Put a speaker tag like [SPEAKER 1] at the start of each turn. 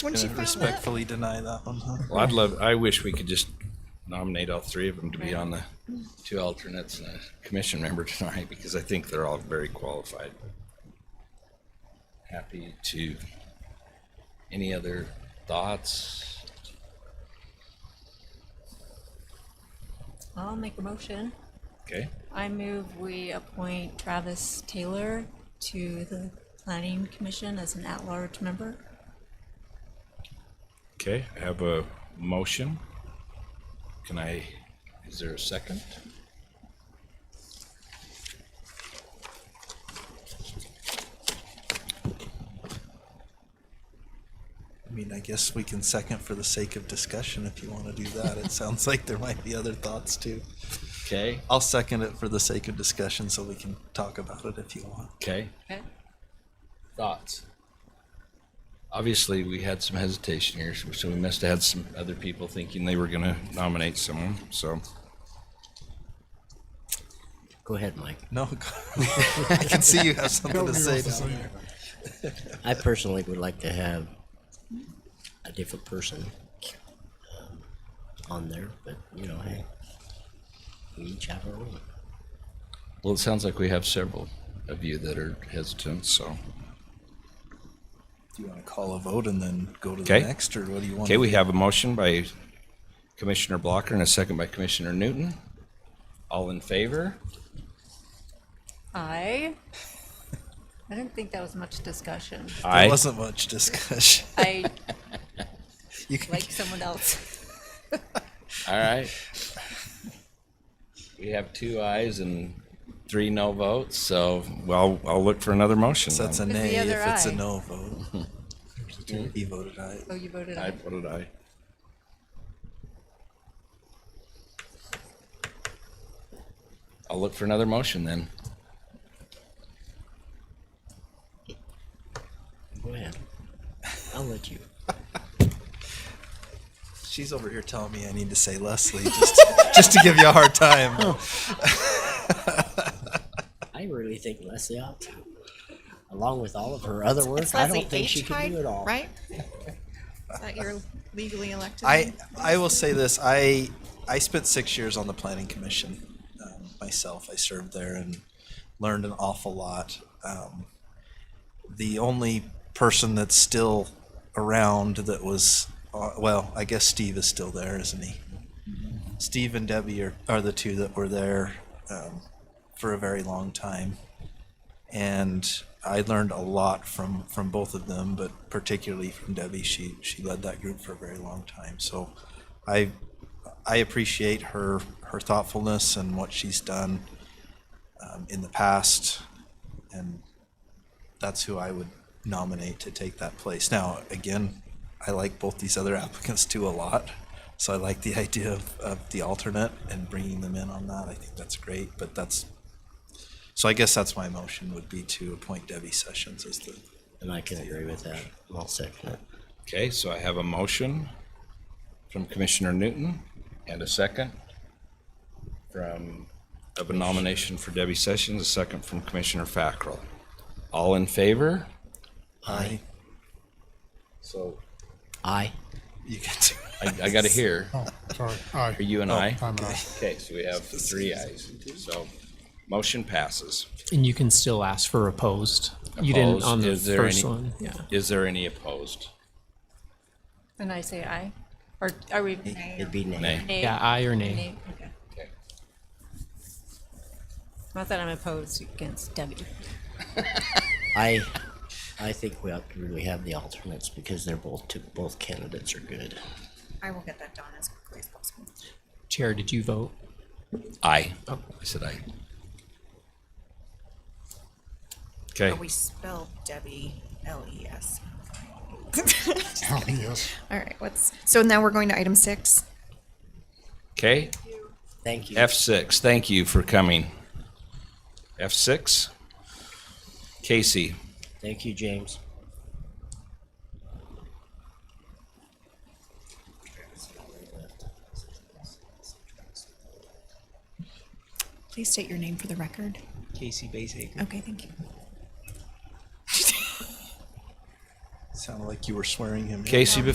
[SPEAKER 1] Once you
[SPEAKER 2] Gonna
[SPEAKER 1] found that,
[SPEAKER 2] respectfully deny that one, huh?
[SPEAKER 3] Well, I'd love, I wish we could just nominate all three of them to be on the two alternates and a commission member tonight because I think they're all very qualified. Happy to, any other thoughts?
[SPEAKER 4] I'll make a motion.
[SPEAKER 3] Okay,
[SPEAKER 4] I move we appoint Travis Taylor to the Planning Commission as an at-large member.
[SPEAKER 3] okay, I have a motion. Can I, is there a second?
[SPEAKER 2] I mean, I guess we can second for the sake of discussion if you want to do that. It sounds like there might be other thoughts too.
[SPEAKER 3] Okay,
[SPEAKER 2] I'll second it for the sake of discussion so we can talk about it if you want.
[SPEAKER 3] okay,
[SPEAKER 4] Okay.
[SPEAKER 3] thoughts? Obviously, we had some hesitation here, so so we must have had some other people thinking they were gonna nominate someone, so.
[SPEAKER 5] Go ahead, Mike.
[SPEAKER 2] No, I can see you have something to say down there.
[SPEAKER 5] I personally would like to have a different person um, on there, but you know, hey, we each have our own.
[SPEAKER 3] Well, it sounds like we have several of you that are hesitant, so.
[SPEAKER 2] Do you want to call a vote and then go to the
[SPEAKER 3] Okay.
[SPEAKER 2] next, or what do you want?
[SPEAKER 3] Okay, we have a motion by Commissioner Blocker and a second by Commissioner Newton. All in favor?
[SPEAKER 4] I, I didn't think that was much discussion.
[SPEAKER 2] There
[SPEAKER 3] Aye.
[SPEAKER 2] wasn't much discussion.
[SPEAKER 4] I
[SPEAKER 2] You can,
[SPEAKER 4] like someone else.
[SPEAKER 3] All right. We have two ayes and three no votes, so well, I'll look for another motion.
[SPEAKER 2] that's a
[SPEAKER 4] the
[SPEAKER 2] nay
[SPEAKER 4] other
[SPEAKER 2] if it's a
[SPEAKER 4] eye?
[SPEAKER 2] no vote. He voted aye.
[SPEAKER 4] Oh, you voted
[SPEAKER 3] I
[SPEAKER 4] aye.
[SPEAKER 3] voted aye. I'll look for another motion then.
[SPEAKER 5] Go ahead. I'll let you.
[SPEAKER 2] She's over here telling me I need to say Leslie just just to give you a hard time.
[SPEAKER 5] I really think Leslie ought to, along with all of her other work.
[SPEAKER 1] it's
[SPEAKER 5] I
[SPEAKER 1] Leslie
[SPEAKER 5] don't think
[SPEAKER 1] H.
[SPEAKER 5] she can
[SPEAKER 1] Hyde,
[SPEAKER 5] do it all.
[SPEAKER 1] Right? Is that your legally elected?
[SPEAKER 2] I
[SPEAKER 1] name?
[SPEAKER 2] I will say this. I I spent six years on the planning commission um, myself. I served there and learned an awful lot. Um, the only person that's still around that was uh, well, I guess Steve is still there, isn't he? Steve and Debbie are, are the two that were there um, for a very long time, and I learned a lot from from both of them, but particularly from Debbie. She she led that group for a very long time, so I I appreciate her her thoughtfulness and what she's done um, in the past, and that's who I would nominate to take that place. Now, again, I like both these other applicants too a lot. So I like the idea of, of the alternate and bringing them in on that. I think that's great, but that's, so I guess that's my motion would be to appoint Debbie Sessions as the,
[SPEAKER 5] And I can agree with that. I'll second it.
[SPEAKER 3] Okay, so I have a motion from Commissioner Newton and a second from, of a nomination for Debbie Sessions, a second from Commissioner Fackrell. All in favor?
[SPEAKER 2] I,
[SPEAKER 3] So.
[SPEAKER 5] Aye.
[SPEAKER 2] you get to.
[SPEAKER 3] I, I gotta hear.
[SPEAKER 6] Oh, sorry. Aye.
[SPEAKER 3] Are you an aye?
[SPEAKER 6] I'm uh, an aye.
[SPEAKER 3] Okay, so we have three ayes. So, motion passes.
[SPEAKER 7] And you can still ask for opposed. You didn't on
[SPEAKER 3] Opposed?
[SPEAKER 7] the
[SPEAKER 3] Is there
[SPEAKER 7] first
[SPEAKER 3] any-
[SPEAKER 7] one. Yeah.
[SPEAKER 3] Is there any opposed?
[SPEAKER 4] And I say aye. Or are we? Nay.
[SPEAKER 5] It'd be nay.
[SPEAKER 3] Nay.
[SPEAKER 7] Yeah, aye or nay.
[SPEAKER 4] Nay, okay.
[SPEAKER 3] Okay.
[SPEAKER 4] Not that I'm opposed against Debbie.
[SPEAKER 5] I, I think we ought to really have the alternates because they're both two, both candidates are good.
[SPEAKER 1] I will get that done as quickly as possible.
[SPEAKER 7] Chair, did you vote?
[SPEAKER 3] Aye. I said aye. Okay,
[SPEAKER 1] But we spell Debbie L E S.
[SPEAKER 6] Oh, yes.
[SPEAKER 1] All right, what's, so now we're going to item six.
[SPEAKER 3] okay.
[SPEAKER 5] Thank you.
[SPEAKER 3] F6, thank you for coming. F6? Casey,
[SPEAKER 5] Thank you, James.
[SPEAKER 1] Please state your name for the record.
[SPEAKER 8] Casey Basehaker.
[SPEAKER 1] Okay, thank you.
[SPEAKER 2] Sounded like you were swearing him. in.
[SPEAKER 3] Casey,